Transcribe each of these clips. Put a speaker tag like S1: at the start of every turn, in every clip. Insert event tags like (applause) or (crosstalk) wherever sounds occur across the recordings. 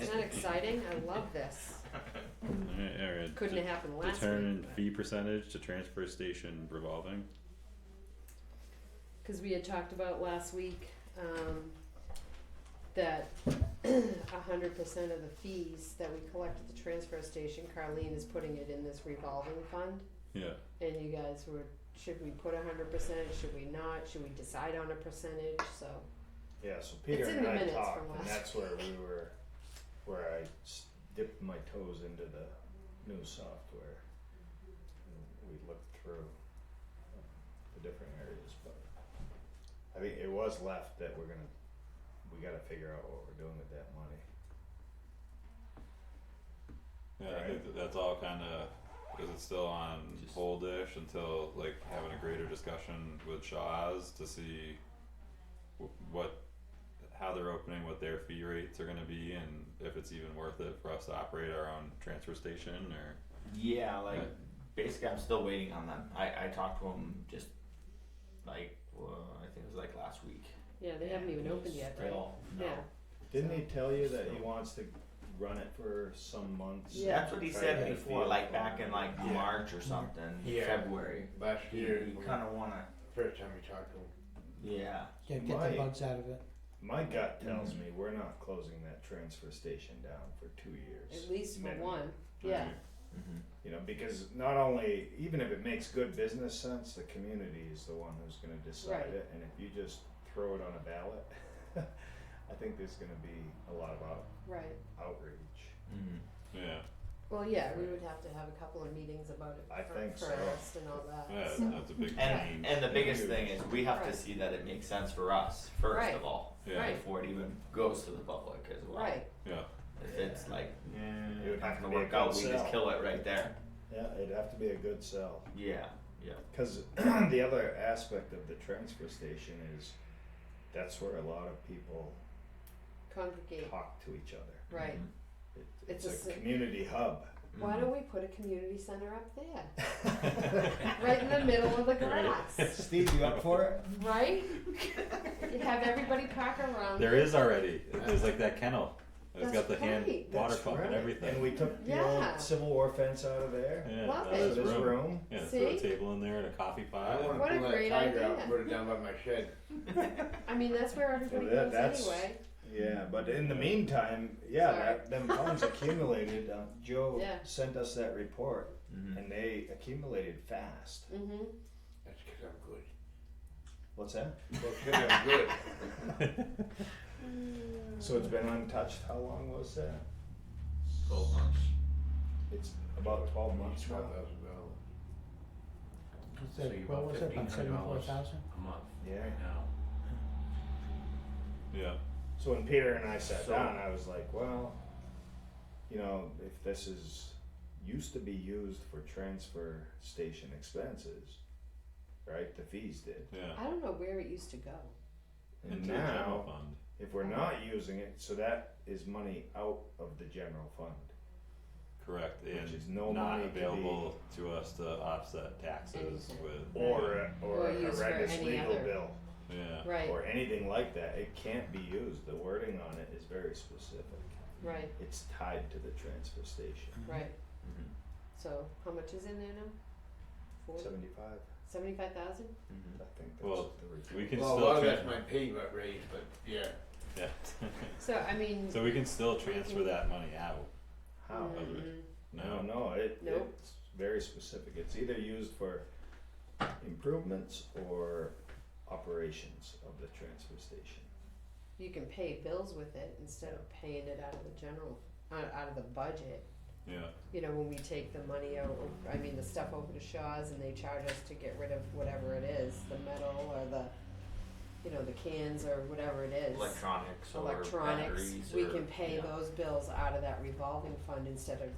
S1: Isn't that exciting? I love this.
S2: Alright, alright.
S1: Couldn't
S2: de-
S1: have happened last
S2: Determine
S1: week.
S2: fee percentage to transfer station revolving.
S1: Cause we had talked about last week, um, that (clears throat) a hundred percent of the fees that we collect at the transfer station, Carlene is putting it in this revolving fund.
S2: Yeah,
S1: And you guys were, should we put a hundred percent, should we not, should we decide on a percentage, so,
S3: Yeah, so Peter
S1: It's in
S3: and
S1: the
S3: I
S1: minutes from
S3: talked, and
S1: last
S3: that's where we were, where I s- dipped my toes into the new software. And We looked through the different areas, but I think it was left that we're gonna, we gotta figure out what we're doing with that money.
S2: yeah, I think that that's all kinda, because it's still on
S4: Just-
S2: holdish until like having a greater discussion with Shaw's to see wh- what, how they're opening, what their fee rates are gonna be and if it's even worth it for us to operate our own transfer station or.
S4: Yeah, like
S2: Right.
S4: basically, I'm still waiting on them. I I talked to him just like uh, I think it was like last week.
S1: yeah, they haven't even
S4: And
S1: opened
S4: he's
S1: yet, right?
S4: still- No.
S1: Yeah.
S3: Didn't he tell you that he wants to run it for some months?
S1: Yeah.
S4: That's what he
S3: Try to
S4: said
S3: get a
S4: before,
S3: feel
S4: like
S3: for
S4: back
S3: it?
S4: in like
S5: Yeah.
S4: March or something,
S5: Yeah.
S4: February.
S5: Last
S4: You,
S5: year,
S1: Mm-hmm.
S4: you kind of wanna,
S5: first time we talked to him.
S4: yeah.
S6: Yeah, get the
S3: Right.
S6: bugs out of it.
S3: My gut
S4: Mm-hmm.
S3: tells me we're not closing that transfer station down for two years.
S1: At least for
S3: minimum.
S1: one, yeah,
S4: Mm-hmm.
S3: You know, because not only, even if it makes good business sense, the community is the one who's gonna decide
S1: Right.
S3: it, and if you just throw it on a ballot, (laughs) I think there's gonna be a lot of out-
S1: right.
S3: outreach.
S4: Mm-hmm.
S2: Yeah,
S1: Well, yeah, we would have to have a couple of meetings about it
S3: I think
S1: fir-
S3: so.
S1: first and all that,
S2: yeah,
S1: so-
S2: that's a big
S4: And
S2: change,
S4: and the biggest
S3: Huge.
S4: thing is we have
S1: Right.
S4: to see that it makes sense for us first
S1: Right.
S4: of all
S2: yeah,
S1: Right.
S4: before it even goes to the public as well.
S1: Right,
S2: yeah,
S4: If it's like
S3: Mm. It would have
S4: not
S3: to
S4: gonna
S3: be a
S4: work out,
S3: good
S4: we just
S3: sell.
S4: kill it right there.
S3: Yeah, it'd have to be a good sell.
S4: Yeah. Yeah.
S3: Because (clears throat) the other aspect of the transfer station is that's where a lot of people
S1: congregate,
S3: talk to each other.
S1: right.
S4: Mm-hmm.
S3: It,
S1: It's
S3: it's,
S1: a s-
S3: a, community hub. (laughs)
S1: Why
S4: Mhm.
S1: don't we put a community center up there? Right in the middle of the grass,
S3: Steve, you up for it?
S1: right? You have everybody park around
S2: There
S1: it.
S2: is already. There's like that kennel. It's
S1: That's
S2: got the hand
S1: right.
S2: water
S3: That's
S2: pump
S3: right.
S2: and everything.
S3: And we took the
S1: Yeah.
S3: old Civil War fence out of there.
S2: yeah,
S1: Love
S2: that
S1: it.
S2: is
S3: This
S2: room.
S3: room.
S2: Yeah,
S1: See?
S2: throw a table in there and a coffee
S5: I
S2: pot.
S5: wanna
S1: What a
S5: pull
S1: great
S5: that tiger out
S1: idea.
S5: and put it down by my shed.
S1: I mean, that's where everybody
S3: that-
S1: goes
S3: that's-
S1: anyway,
S3: Yeah, but in the meantime, yeah,
S1: Sorry.
S3: that, them funds accumulated. Uh, Joe
S1: Yeah.
S3: sent us that report,
S2: Hmm.
S4: Mhm.
S3: and they accumulated fast.
S1: mhm,
S5: That's because I'm good.
S3: What's that?
S5: That's because
S4: (laughs)
S5: I'm good.
S4: Mm-hmm.
S3: So it's been untouched. How long was that?
S4: Twelve months.
S3: It's about 12 months now.
S5: Twelve thousand dollars
S6: What's
S5: So you
S6: that, what
S5: bought
S6: was it, about seventy-four
S5: $1,500.
S6: thousand?
S5: a month
S3: Yeah.
S5: right now.
S2: (laughs) Yeah,
S3: So when Peter and I sat
S4: So-
S3: down, I was like, well, you know, if this is used to be used for transfer station expenses, right? The fees did.
S2: yeah.
S1: I don't know where it used to go,
S3: And
S2: Into the general
S3: now,
S2: fund.
S3: if we're not using it, so that is money out of the general fund.
S2: Correct.
S3: Which
S2: And
S3: is no
S2: not
S3: money to be-
S2: available to us to offset taxes
S1: Anything.
S2: with
S3: Or, or
S1: Or
S3: a
S1: used for
S3: horrendous
S1: any
S3: legal
S1: other-
S3: bill,
S2: Yeah.
S1: right,
S3: or anything like that, it can't be used, the wording on it is very specific.
S1: right,
S3: It's tied to the transfer station,
S1: right.
S4: Mhm.
S1: So, how much is in there now? Forty,
S3: seventy-five,
S1: seventy-five thousand?
S4: Mm-hmm.
S3: I think that's
S2: Well,
S3: what the report.
S2: We can
S5: Well, a
S2: still
S5: lot of
S2: tran-
S5: that's my payment raise, but yeah.
S2: yeah. (laughs)
S1: So, I mean,
S2: so we can still transfer that money out.
S3: How?
S1: mm,
S3: No,
S2: No.
S3: no, it,
S1: Nope.
S3: it's very specific. It's either used for improvements or operations of the transfer station.
S1: you can pay bills with it instead of paying it out of the general, out, out of the budget.
S2: Yeah.
S1: you know, when we take the money out, I mean, the stuff over to Shaw's and they charge us to get rid of whatever it is, the metal or the, you know, the cans or whatever it is.
S4: Electronics or
S1: Electronics,
S4: batteries
S1: we
S4: or-
S1: can pay
S4: yeah.
S1: those bills out of that revolving fund instead of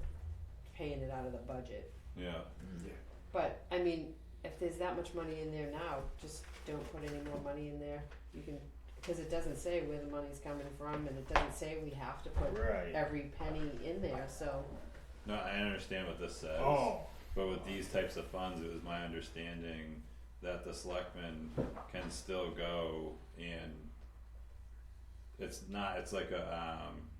S1: paying it out of the budget.
S2: Yeah.
S4: Mhm.
S1: But, I mean, if there's that much money in there now, just don't put any more money in there, you can, cause it doesn't say where the money's coming from and it doesn't say we have to put
S3: Right.
S1: every penny in there, so,
S2: No, I understand what this says.
S3: Oh,
S2: But with these types of funds, it was my understanding that the selectmen can still go and it's not, it's like a, um,